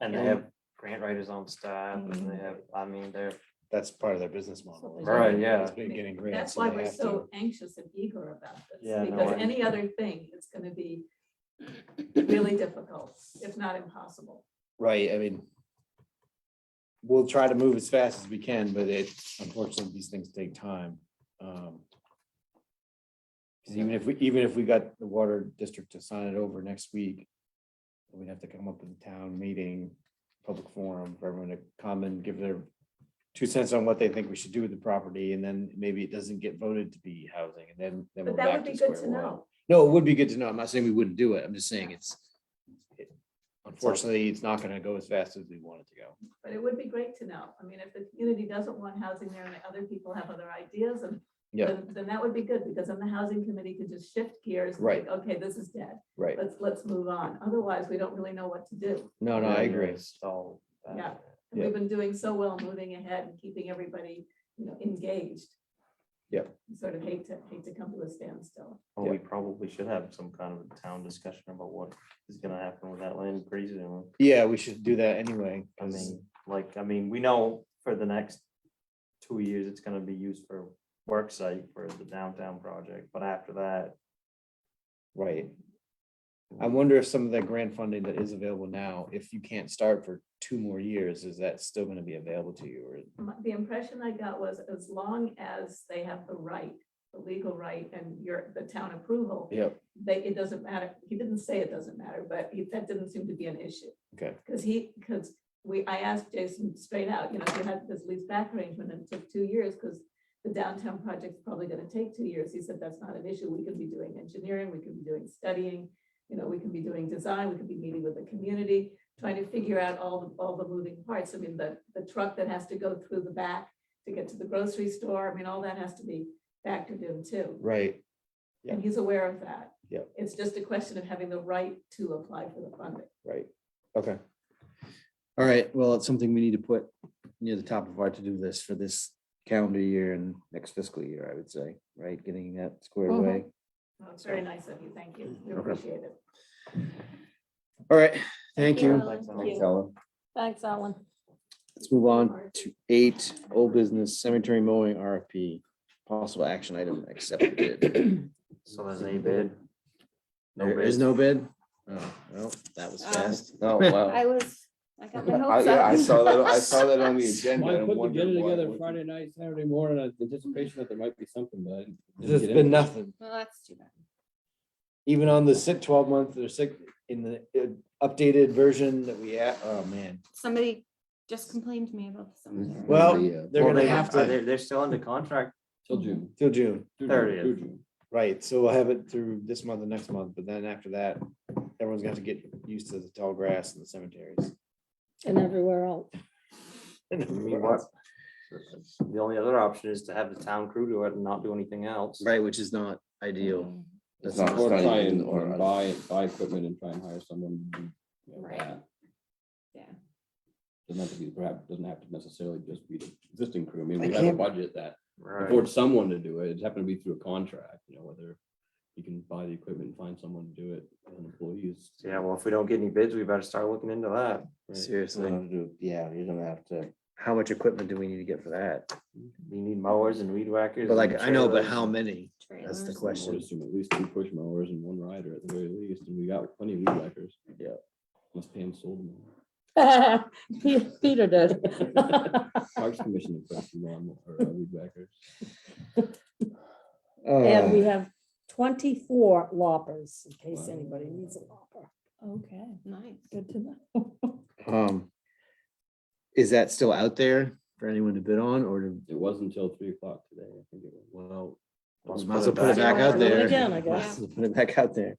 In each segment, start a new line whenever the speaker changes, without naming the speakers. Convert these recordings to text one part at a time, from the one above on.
And they
Yeah.
have grant writers on staff and they
Mm.
Mhm.
have, I mean, they're,
That's part of their business model.
Absolutely.
right, yeah,
It's been getting grants.
That's
so
why
they
we're
have to-
so anxious and eager about
Yeah,
this,
no,
because
I-
any other thing, it's gonna be really difficult, if not impossible.
Right, I mean. We'll try to move as fast as we can, but it, unfortunately, these things take time. um, 'cause even if we, even if we got the water district to sign it over next week, we'd have to come up with a town meeting, public forum for everyone to come and give their two cents on what they think we should do with the property, and then maybe it doesn't get voted to be housing, and then, then we're
But that
back
would
to
be good
square
to
one.
know.
No, it would be good to know. I'm not saying we wouldn't do it. I'm just saying it's. it- Unfortunately, it's not gonna go as fast as we want it to go.
But it would be great to know. I mean, if the community doesn't want housing there and the other people have other ideas and
Yeah.
then, then that would be good because then the housing committee could just shift gears. and
Right.
think, Okay, this is dead.
Right.
Let's, let's move on. Otherwise, we don't really know what to do.
Oh, No, no, I
they're
agree.
installed. uh,
Yeah. And
Yeah.
We've been doing so well moving ahead and keeping everybody, you know, engaged.
Yeah.
Sort of hate to, hate to come to a standstill.
Well, we probably should have some kind of a town discussion about what is gonna happen with that land pretty soon.
Yeah, we should do that anyway.
I
'cause-
mean, like, I mean, we know for the next two years, it's gonna be used for work site for the downtown project, but after that.
Right. I wonder if some of that grant funding that is available now, if you can't start for two more years, is that still gonna be available to you or?
My- The impression I got was as long as they have the right, the legal right and your, the town approval,
Yep,
they, it doesn't matter. He didn't say it doesn't matter, but he- that didn't seem to be an issue.
okay,
Because he, because we, I asked Jason straight out, you know, you had this lease back arrangement and it took two years because the downtown project's probably gonna take two years. He said, that's not an issue. We can be doing engineering, we can be doing studying. You know, we can be doing design, we could be meeting with the community, trying to figure out all, the all the moving parts. I mean, the, the truck that has to go through the back to get to the grocery store, I mean, all that has to be factored in too.
right,
And he's aware of that.
Yeah.
It's just a question of having the right to apply for the funding.
right, okay. All right, well, it's something we need to put near the top of our to-do list for this calendar year and next fiscal year, I would say, right? Getting that squared
Mhm.
away.
Oh,
Well, it's very nice of you. Thank you. We
Okay.
appreciate it.
All right, thank you.
Thanks, Alan.
Thanks, Alan.
Thanks, Alan.
Let's move on to eight, old business cemetery mowing RFP, possible action item accepted.
So there's a bid. No
There is
bid.
no bid? Oh, well, that was
Um,
fast.
Oh, wow.
I was, I got my
I,
hopes
yeah, I
up.
saw that, I saw that on the agenda.
Well, I
and
put
wondered
together
why it
together
wasn't-
Friday night, Saturday morning, in anticipation that there might be something, but. I didn't
There's
get
been
anything.
nothing,
Well, that's too bad.
even on the sick twelve month or sick, in the uh, updated version that we, had. oh, man.
Somebody just complained to me about the cemetery.
Well,
Yeah.
they're
Well,
gonna
they
have
are-
to,
They're, they're still under contract.
Till June.
till June,
through June,
30th.
through June.
right, so we'll have it through this month and next month, but then after that, everyone's gonna have to get used to the tall grass and the cemeteries.
and everywhere else.
I mean, what- The only other option is to have the town crew do it and not do anything else.
Right, which is not ideal.
Mm,
That's not,
not- it's
Or
not
try
even
and, or
on-
buy, buy equipment and try and hire someone. to do, you know,
Right.
that.
Yeah.
Doesn't have to be, perhaps, doesn't have to necessarily just be the existing crew. I mean,
I
we have a
can't-
budget that
Right.
affords someone to do it. It's happened to be through a contract, you know, whether you can buy the equipment and find someone to do it, and employees.
Yeah, well, if we don't get any bids, we better start looking into that.
Uh-huh. seriously.
Yeah, you're gonna have to.
how much equipment do we need to get for that?
We need mowers and weed whackers.
But like,
and
I know, but
trailers.
how many?
trailers
the
and-
question.
I would assume At least two push mowers and one rider at the very least, and we got plenty of weed whackers.
Yeah.
Must pay him sold them.
Pe- Peter did.
Parks Commission in fact, lawn or uh, weed whackers.
And
Uh,
we have twenty-four loppers, in case
Wow.
anybody needs a lopper. Okay,
Nice.
good to know.
Um, is that still out there for anyone to bid on or to,
It was until three o'clock today, I think it was.
well,
Let's
might as well put it
back.
back out
Put it
there.
again, I
Might
guess.
as well Put it back out there.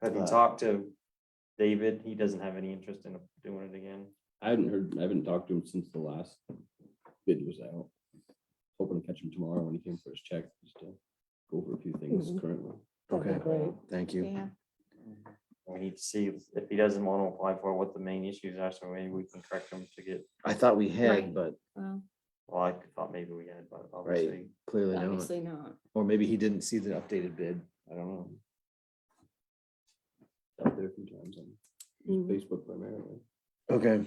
Have you
Uh,
talked to David? He doesn't have any interest in doing it again.
I haven't heard, I haven't talked to him since the last bid was out. Hoping to catch him tomorrow when he came for his check, just to go over a few things
Mhm.
currently.
That'd be
Okay.
great.
Thank you.
Yeah,
We need to see if- if he doesn't want to apply for it, what the main issues are, so maybe we can correct him to get,
I thought we had,
Right.
but
well,
well, I thought maybe we had, but obviously.
clearly not.
obviously not.
Or maybe he didn't see the updated bid. I don't know.
Out there a few times on
Mhm.
Facebook primarily.
Okay.